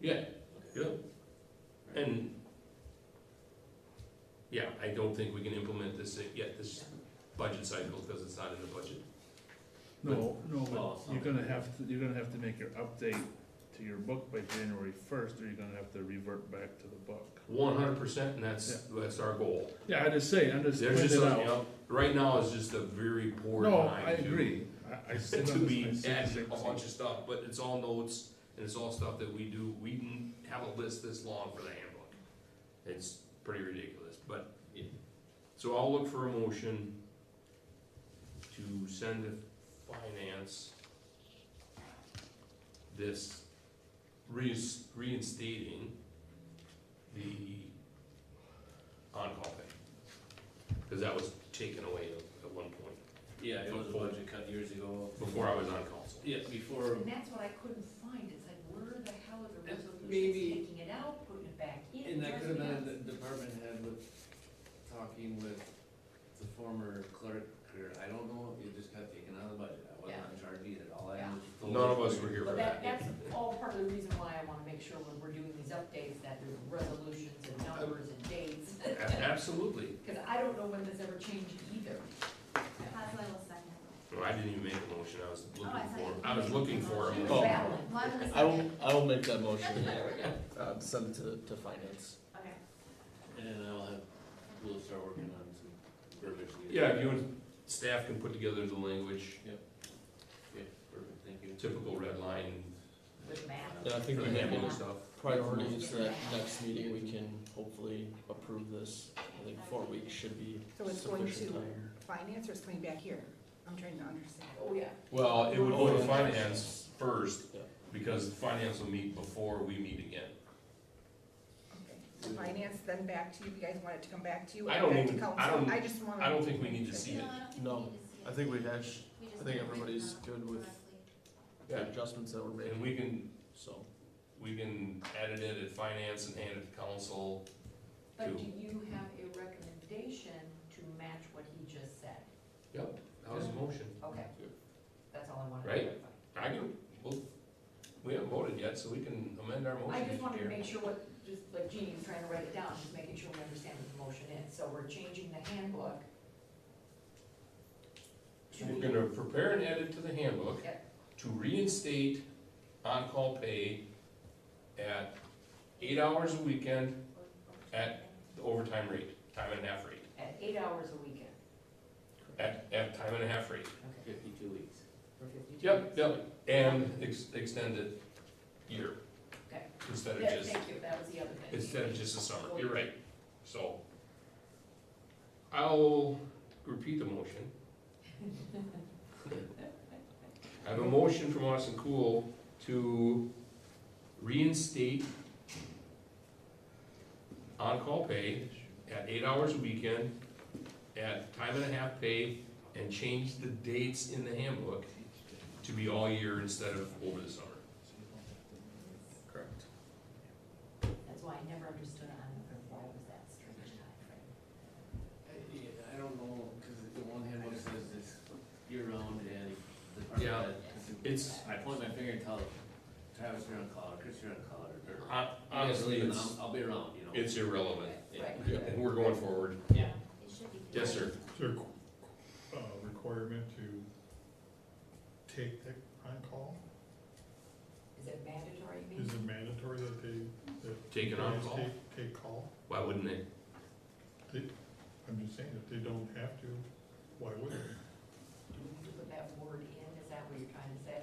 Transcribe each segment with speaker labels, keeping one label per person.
Speaker 1: Yeah, yeah. And, yeah, I don't think we can implement this yet, this budget cycle, because it's not in the budget.
Speaker 2: No, no,
Speaker 1: Well,
Speaker 2: but
Speaker 1: it's
Speaker 2: you're
Speaker 1: not.
Speaker 2: gonna have to, you're gonna have to make your update to your book by January first, or you're gonna have to revert back to the book.
Speaker 1: One hundred percent, and that's, that's our goal.
Speaker 2: Yeah, I just say, I'm just
Speaker 1: There's just,
Speaker 2: pointing
Speaker 1: you
Speaker 2: it out.
Speaker 1: know, right now is just a very poor
Speaker 2: No,
Speaker 1: time.
Speaker 2: I
Speaker 1: to-
Speaker 2: agree, I, I sit
Speaker 1: To
Speaker 2: on
Speaker 1: be
Speaker 2: this, I see
Speaker 1: adding a
Speaker 2: the same
Speaker 1: bunch
Speaker 2: thing.
Speaker 1: of stuff, but it's all notes, and it's all stuff that we do, we didn't have a list this long for the handbook. It's pretty ridiculous, but, so I'll look for a motion to send to finance this reins- reinstating the on-call pay. Cause that was taken away at- at one point,
Speaker 3: Yeah, it was a budget cut years ago.
Speaker 1: before I was on council.
Speaker 3: Yeah, before,
Speaker 4: And that's what I couldn't find, it's like, where the hell is the
Speaker 3: That's
Speaker 4: resolution
Speaker 3: maybe-
Speaker 4: taking it out, putting it back in?
Speaker 3: and that could have
Speaker 4: doesn't
Speaker 3: been
Speaker 4: have-
Speaker 3: the department head with, talking with the former clerk, or I don't know, it just got taken out of the budget. I wasn't in charge either, all I
Speaker 4: Yeah.
Speaker 3: was told.
Speaker 1: None of us were here for
Speaker 4: But that,
Speaker 1: that.
Speaker 4: that's all part of the reason why I wanna make sure when we're doing these updates, that there's resolutions and numbers and dates,
Speaker 1: A- Absolutely.
Speaker 4: cause I don't know when this ever changed either.
Speaker 5: Haswell will second.
Speaker 1: No, I didn't even make a motion, I was
Speaker 5: Oh, I
Speaker 1: looking
Speaker 5: thought
Speaker 1: for,
Speaker 5: you-
Speaker 1: I was looking for a
Speaker 4: She was
Speaker 1: motion.
Speaker 4: battling.
Speaker 5: Lund will
Speaker 6: I will,
Speaker 5: second.
Speaker 6: I will make that motion,
Speaker 4: There we go.
Speaker 6: uh, send it to, to finance.
Speaker 5: Okay.
Speaker 3: And I'll have, we'll start working on some verbiage. needed.
Speaker 1: Yeah, you and staff can put together the language,
Speaker 3: Okay, perfect, thank you.
Speaker 1: typical red line,
Speaker 4: With Matt.
Speaker 6: Yeah, I think
Speaker 1: for
Speaker 6: we have
Speaker 1: handling
Speaker 6: it.
Speaker 1: stuff.
Speaker 6: Priorities that next meeting, we can hopefully approve this. I think four weeks should be
Speaker 7: So it's going
Speaker 6: sufficient
Speaker 7: to-
Speaker 6: time.
Speaker 7: finance or it's coming back here? I'm trying to understand.
Speaker 4: Oh, yeah.
Speaker 1: Well, it would go
Speaker 6: Oh,
Speaker 1: to
Speaker 6: yeah.
Speaker 1: finance first,
Speaker 6: Yeah.
Speaker 1: because finance will meet before we meet again.
Speaker 7: Okay. So finance, then back to you, you guys want it to come back to you?
Speaker 1: I
Speaker 7: and
Speaker 1: don't
Speaker 7: back to
Speaker 1: even- I
Speaker 7: council?
Speaker 1: don't-
Speaker 7: I just wanna.
Speaker 1: I don't think we need to see
Speaker 5: No,
Speaker 1: it.
Speaker 5: I don't think
Speaker 6: No,
Speaker 5: we need to see it.
Speaker 6: I think we hash,
Speaker 5: We just
Speaker 6: I think
Speaker 5: need to
Speaker 6: everybody's
Speaker 5: vote
Speaker 6: good with
Speaker 5: correctly.
Speaker 6: the adjustments that were made,
Speaker 1: And we can,
Speaker 6: so.
Speaker 1: we can edit it at finance and hand it to council.
Speaker 4: But
Speaker 1: Two.
Speaker 4: do you have a recommendation to match what he just said?
Speaker 1: Yep, that was a motion.
Speaker 4: Okay, that's all I wanted to
Speaker 1: Right.
Speaker 4: clarify.
Speaker 1: I can, well, we haven't voted yet, so we can amend our motion.
Speaker 4: I just wanted to
Speaker 1: here.
Speaker 4: make sure what, just like Jeannie was trying to write it down, just making sure we understand what the motion is. So we're changing the handbook. to
Speaker 1: We're gonna prepare an edit to the handbook
Speaker 4: Yep.
Speaker 1: to reinstate on-call pay at eight hours a weekend, At- the overtime rate, time and a half rate,
Speaker 4: At eight hours a weekend,
Speaker 1: at, at time and a half rate.
Speaker 4: okay,
Speaker 3: Fifty-two weeks.
Speaker 4: for fifty-two.
Speaker 1: Yep, yep, and ex- extend it year.
Speaker 4: Okay.
Speaker 1: Instead of
Speaker 4: Yeah,
Speaker 1: just,
Speaker 4: thank you, that was the other thing.
Speaker 1: instead of just the summer, you're right, so. I'll repeat the motion. I have a motion from Austin Cool to reinstate on-call pay at eight hours a weekend, at time and a half pay, and change the dates in the handbook to be all year instead of over the summer. Correct.
Speaker 4: That's why I never understood on, why was that strange timeframe?
Speaker 3: I, yeah, I don't know, cause the one handbook says it's year round and the
Speaker 1: Yeah.
Speaker 3: department head.
Speaker 1: It's,
Speaker 3: I point my finger and tell Travis, you're on call, or Chris, you're on call, or. or-
Speaker 1: hon- honestly,
Speaker 3: Yeah,
Speaker 1: it's,
Speaker 3: I'll- I'll be around, you know.
Speaker 1: it's irrelevant,
Speaker 4: Right.
Speaker 3: Yeah.
Speaker 1: and we're going forward.
Speaker 3: Yeah.
Speaker 5: It should be.
Speaker 1: Yes, sir.
Speaker 8: Is there a qu- qu- uh, requirement to take the on-call?
Speaker 4: Is it mandatory, you mean?
Speaker 8: Is it mandatory that they
Speaker 1: Take an
Speaker 8: guys
Speaker 1: on-call,
Speaker 8: take, take call?
Speaker 1: why wouldn't they?
Speaker 8: I'm just saying, if they don't have to, why would they?
Speaker 4: Do we need to put that word in, is that what you're trying to say?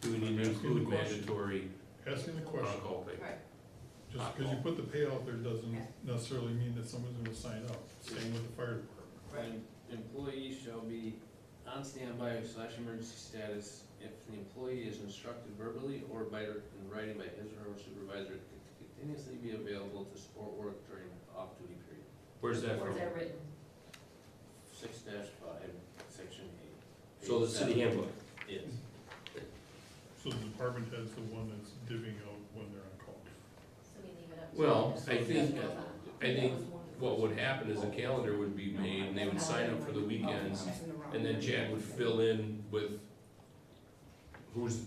Speaker 1: Do we need to
Speaker 8: Asking the
Speaker 1: include
Speaker 8: question.
Speaker 1: mandatory
Speaker 8: Asking the question,
Speaker 1: on-call pay?
Speaker 4: Right.
Speaker 8: just because you put the pay out there doesn't necessarily mean that someone's gonna sign up, same with the fire department.
Speaker 3: When employees shall be on standby slash emergency status if the employee is instructed verbally or by, in writing by his or her supervisor to continuously be available to support work during off-duty period.
Speaker 1: Where's that from?
Speaker 4: Or is that written?
Speaker 3: Six dash five, section eight.
Speaker 1: So the city handbook,
Speaker 3: Yes.
Speaker 8: So the department has the one that's divvying out when they're on call.
Speaker 5: So we leave it up to.
Speaker 1: Well,
Speaker 5: them.
Speaker 1: I think, I
Speaker 4: That
Speaker 1: think
Speaker 4: was one of the
Speaker 1: what
Speaker 4: first-
Speaker 1: would happen is a calendar would be made, and they would sign up for the weekends,
Speaker 7: Something wrong.
Speaker 1: and then Chad would fill in with who's